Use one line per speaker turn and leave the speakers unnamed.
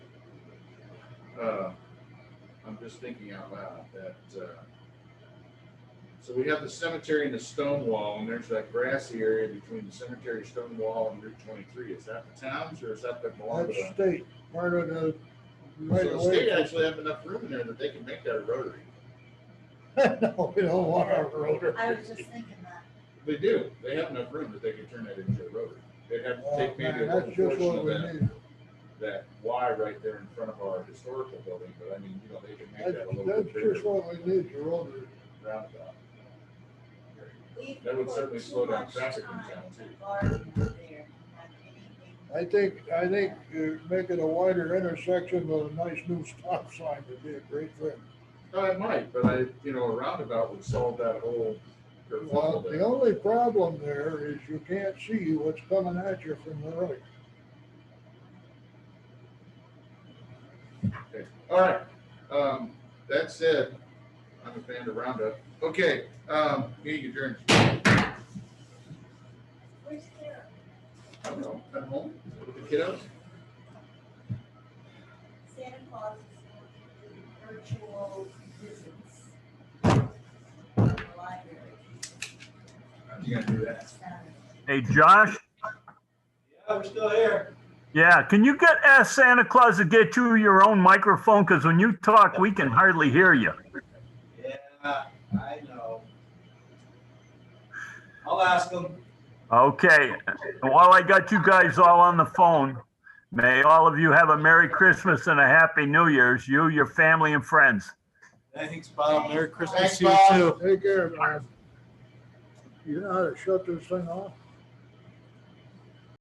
uh, I'm just thinking out loud that, uh, so we have the cemetery and the stone wall, and there's that grassy area between the cemetery, stone wall, and Route twenty-three. Is that the towns, or is that the belong to
That's
the?
state, part of the right
So
of
the state
way.
actually have enough room in there that they can make that a rotary.
No, we don't want our road.
I was just thinking that.
They do. They have enough room that they could turn that into a rotary. They'd have to
Oh,
take maybe a
man,
little
That's just
portion
what
of
we
that,
need.
that Y right there in front of our historical building, but I mean, you know, they can make that a
That's,
little
that's
bit bigger
just what we need, the road.
roundabout.
We've
That would
put
certainly
too
slow down
much
traffic in
time
town, too.
to garden up there and have anything.
I think, I think uh, making a wider intersection with a nice new stop sign would be a great thing.
No, it might, but I, you know, a roundabout would solve that whole
Well,
kerfuffle
the
there.
only problem there is you can't see what's coming at you from the right.
Okay. All right, um, that's it. I'm a fan of roundup. Okay, um, meeting adjourned.
Where's Kara?
I don't know, at home, with the kiddos?
Santa Claus is doing virtual visits. to the Library.
You gotta do that.
Saturday.
Hey, Josh?
Yeah, we're still here.
Yeah, can you get, ask Santa Claus to get you your own microphone? Because when you talk, we can hardly hear you.
Yeah, I know. I'll ask them.
Okay, while I got you guys all on the phone, may all of you have a Merry Christmas and a Happy New Year's, you, your family, and friends.
Thanks, Bob. Merry Christmas
Thanks,
to you too.
Bob.
Take care, man. You know how to shut this thing off?